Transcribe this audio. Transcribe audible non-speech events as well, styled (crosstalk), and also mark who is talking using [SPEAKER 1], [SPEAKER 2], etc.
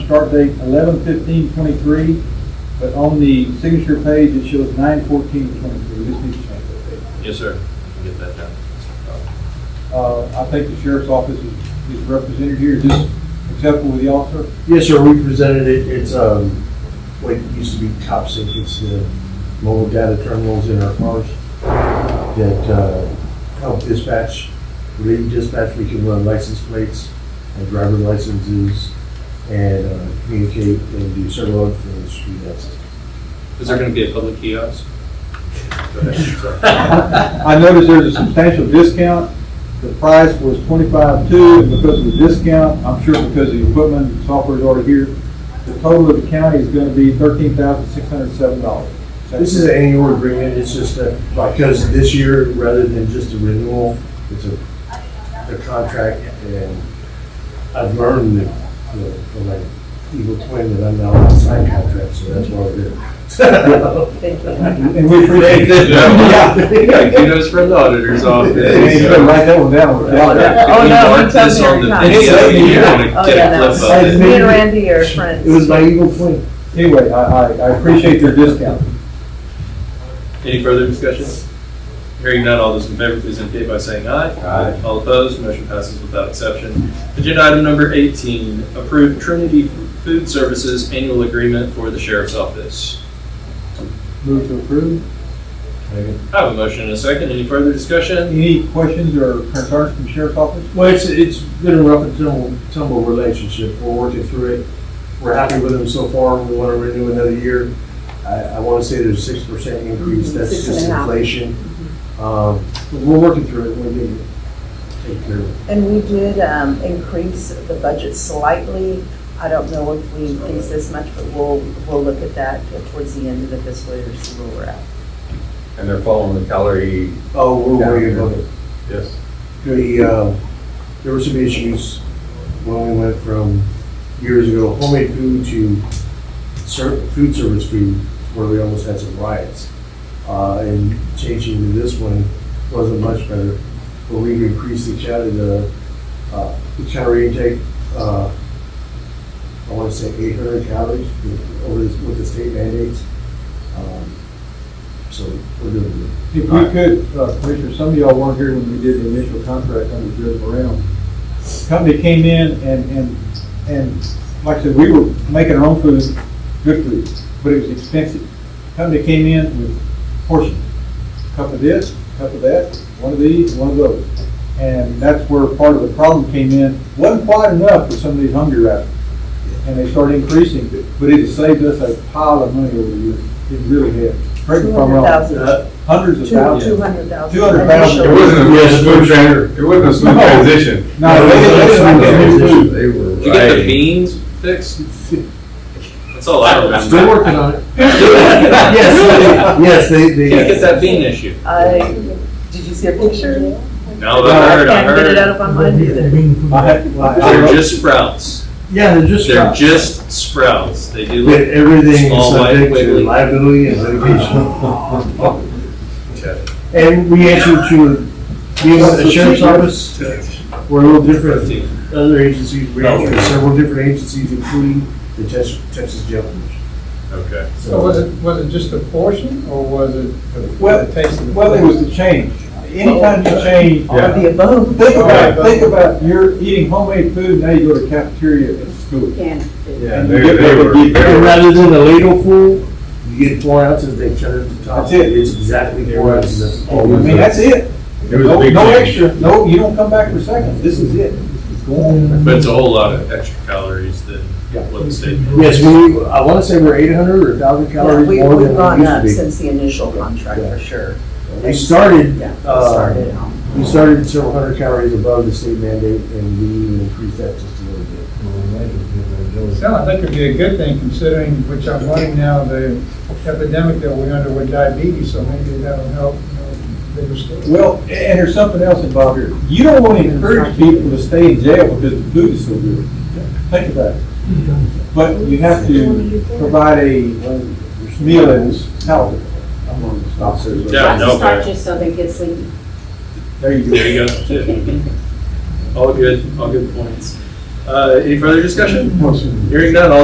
[SPEAKER 1] start date eleven fifteen twenty-three, but on the signature page, it shows nine fourteen twenty-three. This needs to change that date.
[SPEAKER 2] Yes, sir. Get that done.
[SPEAKER 1] Uh, I think the sheriff's office is, is represented here. Is this acceptable with the officer?
[SPEAKER 3] Yes, sir, we presented it, it's, um, what used to be top sync, it's the uh, mobile data terminals in our cars that, uh, help dispatch, relieve dispatch, we can run license plates and driver licenses and, uh, communicate and do several other things through that system.
[SPEAKER 2] Is there gonna be a public kiosk?
[SPEAKER 1] (laughs) I noticed there's a substantial discount. The price was twenty-five-two, and because of the discount, I'm sure because the equipment and software is already here, the total of the county is gonna be thirteen thousand six hundred seven dollars.
[SPEAKER 3] This is an annual agreement, it's just that, because this year, rather than just a renewal, it's a, a contract, and I've learned that, you know, from my evil twin, that I'm not allowed to sign contracts, so that's why (laughs)
[SPEAKER 4] Oh,
[SPEAKER 3] we're here.
[SPEAKER 1] And we appreciate
[SPEAKER 2] Thank you. (laughs)
[SPEAKER 1] Yeah. (laughs)
[SPEAKER 2] Kudos for the auditor's office.
[SPEAKER 1] Hey, you better write that one down.
[SPEAKER 2] If
[SPEAKER 4] Oh,
[SPEAKER 2] we
[SPEAKER 4] no,
[SPEAKER 2] mark
[SPEAKER 4] it's on
[SPEAKER 2] this on the
[SPEAKER 4] there.
[SPEAKER 2] video,
[SPEAKER 1] It's-
[SPEAKER 2] you're gonna
[SPEAKER 4] Oh,
[SPEAKER 2] get
[SPEAKER 4] yeah,
[SPEAKER 2] a
[SPEAKER 4] no.
[SPEAKER 2] clip of it.
[SPEAKER 4] Me and Randy are friends.
[SPEAKER 3] It was my evil twin.
[SPEAKER 1] Anyway, I, I, I appreciate their discount.
[SPEAKER 2] Any further discussion? Hearing none, all those in favor, please indicate by saying aye. Aye. All opposed, motion passes without exception. Agenda item number 18, approve Trinity Food Services annual agreement for the sheriff's office.
[SPEAKER 1] Move to approve.
[SPEAKER 2] I have a motion and a second. Any further discussion?
[SPEAKER 1] Any questions or concerns from sheriff's office?
[SPEAKER 3] Well, it's, it's been a rough and tumble, tumble relationship, we're working through it, we're happy with them so far, we wanna renew another year. I, I wanna say there's a six percent increase,
[SPEAKER 4] Mhm,
[SPEAKER 3] that's
[SPEAKER 4] six and
[SPEAKER 3] just
[SPEAKER 4] a half.
[SPEAKER 3] inflation. Um, but we're working through it, we're gonna take care of it.
[SPEAKER 4] And we did um, increase the budget slightly. I don't know if we increase this much, but we'll, we'll look at that towards the end of the fiscal year to see where we're at.
[SPEAKER 5] And they're following the calorie.
[SPEAKER 3] Oh, we're worried about it.
[SPEAKER 5] Yes.
[SPEAKER 3] The, uh, there were some issues when we went from years ago homemade food to ser, food service food, where we almost had some riots. Uh, and changing to this one wasn't much better, but we've increased the cal, the, uh, the calorie intake, uh, I wanna say eight hundred calories over this, with the state mandates. Um, So we're doing good.
[SPEAKER 1] If we could, uh, Commissioner, some of y'all weren't here when we did the initial contract under Judge Brown. Company came in and, and, and, like I said, we were making our own food, good food, but it was expensive. Company came in with portions, cup of this, cup of that, one of these, one of those. And that's where part of the problem came in, wasn't quite enough for some of these hungry rabbits. And they started increasing it, but it has saved us a pile of money over the years, it really has. Correct me if I'm wrong.
[SPEAKER 4] 200,000.
[SPEAKER 3] Uh,
[SPEAKER 1] Hundreds of thousands.
[SPEAKER 4] Two hundred thousand.
[SPEAKER 3] Um,
[SPEAKER 1] 200,000.
[SPEAKER 5] It wasn't a smooth tran, it wasn't a smooth
[SPEAKER 1] No.
[SPEAKER 5] transition.
[SPEAKER 1] No, they didn't- they didn't-
[SPEAKER 5] They were
[SPEAKER 2] Did you get the
[SPEAKER 5] right.
[SPEAKER 2] beans fixed? That's all I remember.
[SPEAKER 3] (laughs) Still working on
[SPEAKER 5] (laughs)
[SPEAKER 3] it.
[SPEAKER 2] Yes.
[SPEAKER 3] Yes, they, they.
[SPEAKER 2] Can't get that bean issue.
[SPEAKER 4] I, did you see a picture?
[SPEAKER 2] No, I heard, I
[SPEAKER 4] Can't get it out
[SPEAKER 2] heard.
[SPEAKER 4] of my mind either.
[SPEAKER 1] I had- I- I
[SPEAKER 2] They're
[SPEAKER 1] wrote-
[SPEAKER 2] just sprouts.
[SPEAKER 3] Yeah, they're just.
[SPEAKER 2] They're just sprouts. They do
[SPEAKER 3] But
[SPEAKER 2] look.
[SPEAKER 3] everything is
[SPEAKER 2] Small, white,
[SPEAKER 3] subject
[SPEAKER 2] wiggly. Uh-huh.
[SPEAKER 3] to liability and litigation. And we answer to, you know, the sheriff's office, we're a little different than other agencies. We
[SPEAKER 2] No.
[SPEAKER 3] answer to several different agencies, including the Texas, Texas Jail Commission.
[SPEAKER 2] Okay.
[SPEAKER 6] So was it, was it just a portion, or was it the-
[SPEAKER 1] Well,
[SPEAKER 6] the taste of the?
[SPEAKER 1] well, it was the change. Anytime you change,
[SPEAKER 4] All of the above.
[SPEAKER 1] think about, think about, you're eating homemade food, now you go to cafeteria at school.
[SPEAKER 5] Yeah,
[SPEAKER 1] And
[SPEAKER 5] they,
[SPEAKER 1] you get
[SPEAKER 5] they
[SPEAKER 1] like a
[SPEAKER 5] were,
[SPEAKER 1] deep-
[SPEAKER 5] they
[SPEAKER 3] And
[SPEAKER 5] were.
[SPEAKER 3] rather than a ladle full, you get four ounces, they turn it to top.
[SPEAKER 1] That's it.
[SPEAKER 3] It's exactly four ounces.
[SPEAKER 1] I mean, that's it.
[SPEAKER 5] It was a
[SPEAKER 1] No-
[SPEAKER 5] big
[SPEAKER 1] No
[SPEAKER 5] change.
[SPEAKER 1] extra, no, you don't come back for seconds, this is it. It's gone.
[SPEAKER 2] But it's a whole lot of extra calories than
[SPEAKER 1] Yeah.
[SPEAKER 2] what the state.
[SPEAKER 3] Yes, we, I want to say we're eight hundred or thousand
[SPEAKER 4] Yeah,
[SPEAKER 3] calories
[SPEAKER 4] we-
[SPEAKER 3] more
[SPEAKER 4] We've
[SPEAKER 3] than we
[SPEAKER 4] gone
[SPEAKER 3] used to
[SPEAKER 4] up
[SPEAKER 3] be.
[SPEAKER 4] since the initial contract,
[SPEAKER 3] Yeah.
[SPEAKER 4] for sure.
[SPEAKER 3] We started,
[SPEAKER 4] Yeah,
[SPEAKER 3] uh,
[SPEAKER 4] started on.
[SPEAKER 3] we started several hundred calories above the state mandate and we even increased that just a little bit.
[SPEAKER 6] Well, I think it'd be a good thing considering, which I'm learning now, the epidemic that we're under with diabetes, so maybe that'll help, you know, bigger scale.
[SPEAKER 1] Well, and there's something else involved here. You don't want to encourage people to stay in jail because the food is so good. Think about it. But you have to provide a meal that is healthy. I'm going to stop there.
[SPEAKER 2] Yeah, no, but-
[SPEAKER 7] Just so they get sleepy.
[SPEAKER 1] There you go.
[SPEAKER 2] There you go. All good, all good points. Uh, any further discussion? Hearing none, all